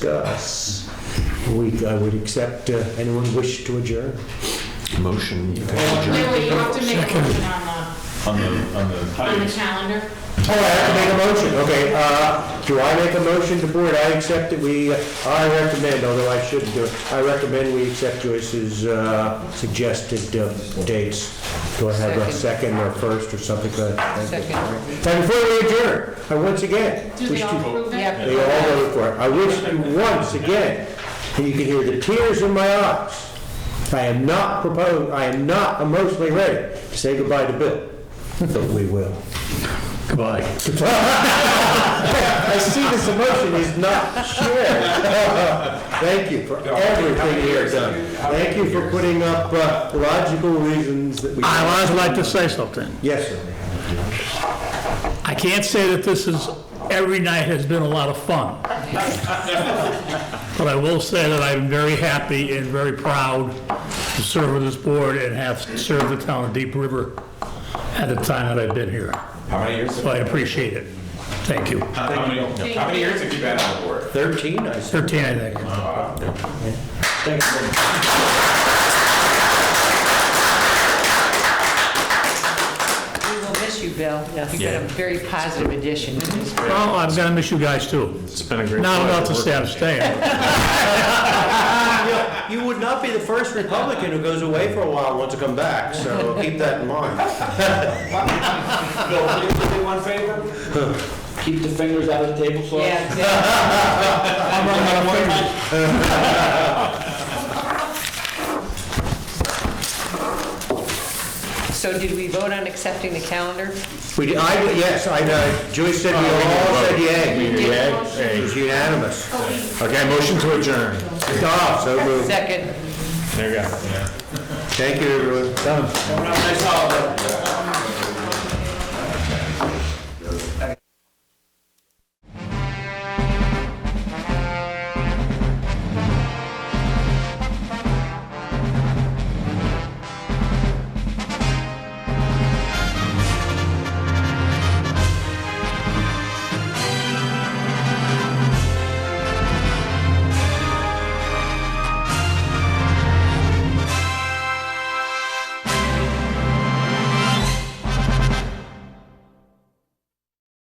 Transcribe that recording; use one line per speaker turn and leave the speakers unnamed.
discuss. We, I would accept, uh, anyone wish to adjourn?
Motion.
No, wait, you have to make a motion on
on the, on
the, on the
the,
calendar.
Oh, I have to make a motion, okay, uh, do I make a motion to board, I accept it, we, uh, I recommend, although I shouldn't do it, I recommend we accept Joyce's, uh, suggested uh, dates. Do I have a second or first or something like that? Second. And before we adjourn, I once again.
Do
wish
they
to-
all approve it?
They all voted for it. I wish you once again, and you can hear the tears in my eyes. I am not proposed, I am not emotionally ready to say goodbye to Bill, but we will.
Goodbye.
I see this emotion is not shared. Thank you for everything you have done. Thank you for putting up uh, logical reasons that we.
I would also like to say something.
Yes, sir.
I can't say that this is, every night has been a lot of fun. But I will say that I'm very happy and very proud to serve with this board and have served the town of Deep River at the time that I've been here.
how many years?
So I appreciate it. Thank you.
How how many, how many years have you been on the board?
13, I said.
13, I think.
Thank you very much.
We will miss you, Bill. You've been a very positive addition to this.
Well, I'm gonna miss you guys too.
It's been a great.
Not
pleasure
enough to
working
say I'm staying.
You would not be the first Republican who goes away for a while and wants to come back, so keep that in mind.
Bill, can you do me one favor? Keep the fingers out of the table so.
Yeah, exactly. So did we vote on accepting the calendar?
We, I, yes, I know, Joyce said we all
Oh,
said yay.
did.
It was unanimous.
Okay, motion to adjourn.
Ah, so moved.
Second.
There you go.
Thank you, everyone. Done.
Have a nice holiday.